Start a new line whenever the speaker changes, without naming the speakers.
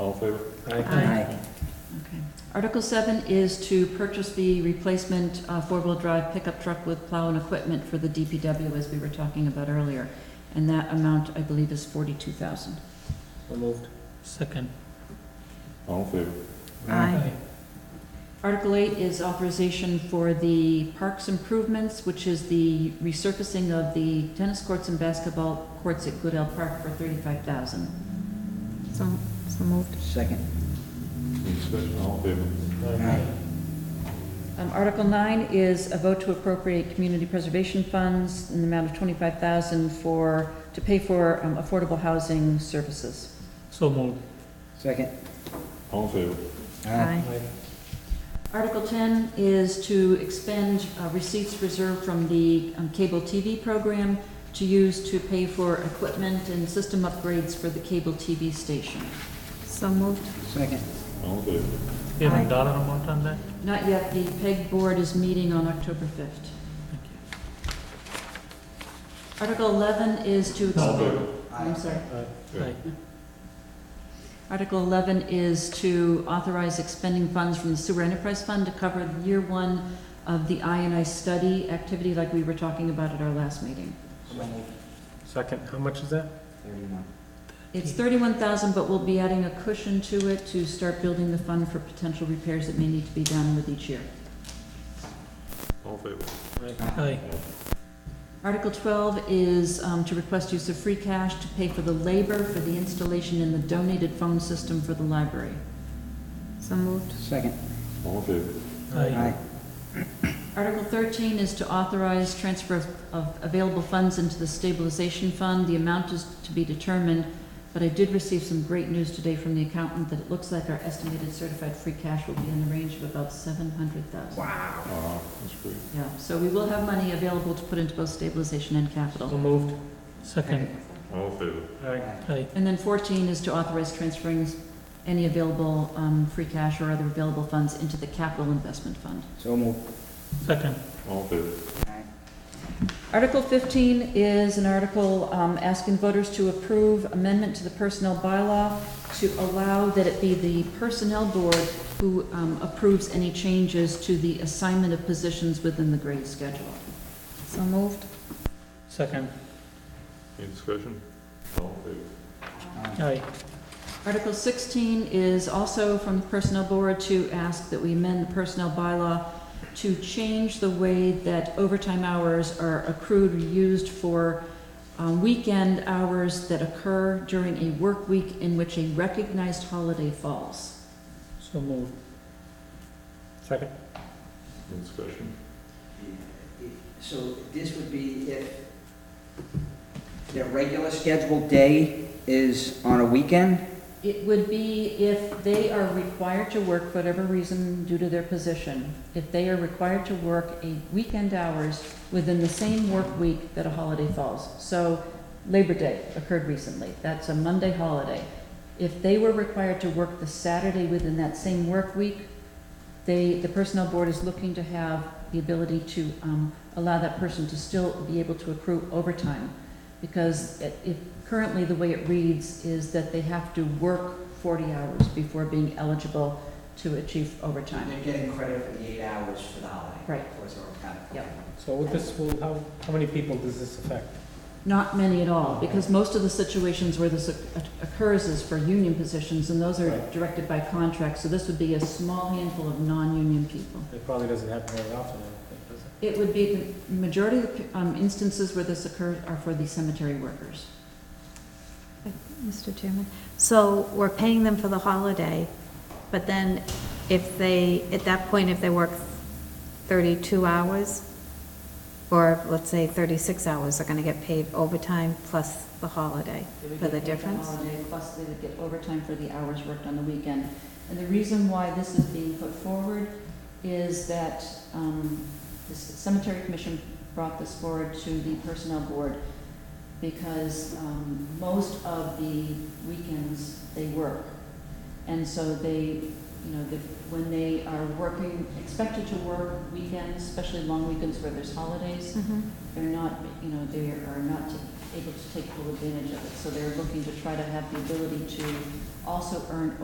All in favor?
Aye.
Okay. Article seven is to purchase the replacement uh, four-wheel-drive pickup truck with plow and equipment for the DPW, as we were talking about earlier. And that amount, I believe, is forty-two thousand.
So moved.
Second.
All in favor?
Aye.
Article eight is authorization for the parks improvements, which is the resurfacing of the tennis courts and basketball courts at Goodell Park for thirty-five thousand.
So, so moved.
Second.
Any discussion? All in favor?
Aye.
Um, Article nine is a vote to appropriate community preservation funds in the amount of twenty-five thousand for, to pay for um, affordable housing services.
So moved.
Second.
All in favor?
Aye.
Article ten is to expend uh, receipts reserved from the um, cable TV program to use to pay for equipment and system upgrades for the cable TV station.
So moved.
Second.
All in favor?
Do you have
Aye.
a dollar amount on that?
Not yet, the PEG board is meeting on October fifth.
Thank you.
Article eleven is
All
to
in
expend,
favor?
I'm sorry.
Aye.
Article 11 is to authorize expending funds from the Sewer Enterprise Fund to cover year one of the INI study activity like we were talking about at our last meeting.
So moved.
Second, how much is that?
Thirty-one.
It's 31,000, but we'll be adding a cushion to it to start building the fund for potential repairs that may need to be done with each year.
All in favor?
Aye.
Article 12 is um, to request use of free cash to pay for the labor for the installation in the donated phone system for the library.
So moved.
Second.
All in favor?
Aye.
Article 13 is to authorize transfer of- of available funds into the stabilization fund. The amount is to be determined, but I did receive some great news today from the accountant that it looks like our estimated certified free cash will be in the range of about 700,000.
Wow.
Uh, that's great.
Yeah, so we will have money available to put into both stabilization and
So
capital.
moved.
Second.
All in favor?
Aye.
Aye.
And then 14 is to authorize transferring any available um, free cash or other available funds into the capital investment fund.
So moved.
Second.
All in favor?
Aye.
Article 15 is an article um, asking voters to approve amendment to the personnel bylaw to allow that it be the personnel board who um, approves any changes to the assignment of positions within the grade schedule.
So moved.
Second.
Any discussion? All in favor?
Aye.
Aye.
Article 16 is also from the Personnel Board to ask that we amend the personnel bylaw to change the way that overtime hours are accrued or used for um, weekend hours that occur during a work week in which a recognized holiday falls.
So moved.
Second.
Any discussion?
So this would be if their regular scheduled day is on a weekend?
It would be if they are required to work, whatever reason due to their position, if they are required to work a weekend hours within the same work week that a holiday falls. So Labor Day occurred recently, that's a Monday holiday. If they were required to work the Saturday within that same work week, they, the personnel board is looking to have the ability to, um, allow that person to still be able to accrue overtime because it- if, currently the way it reads is that they have to work 40 hours before being eligible to achieve overtime.
getting credit for the eight hours for the holiday.
Right.
Or it's overtime.
Yep.
So with this will, how, how many people does this affect?
Not many at all, because most of the situations where this oc- occurs is for union positions, and those are
Right.
directed by contract, so this would be a small handful of non-union people.
It probably doesn't happen very often, I don't think, does it?
It would be, the majority of the um, instances where this occurs are for the cemetery workers.
Mr. Chairman. So we're paying them for the holiday, but then if they, at that point, if they work 32 hours, or let's say 36 hours, they're going to get paid overtime plus the holiday for the difference?
holiday, Plus they would get overtime for the hours worked on the weekend. And the reason why this is being put forward is that um, the cemetery commission brought this forward to the personnel board because um, most of the weekends they work. And so they, you know, the- when they are working, expected to work weekends, especially long weekends where there's holidays,
Mhm.
they're not, you know, they are not able to take full advantage of it. So they're looking to try to have the ability to also earn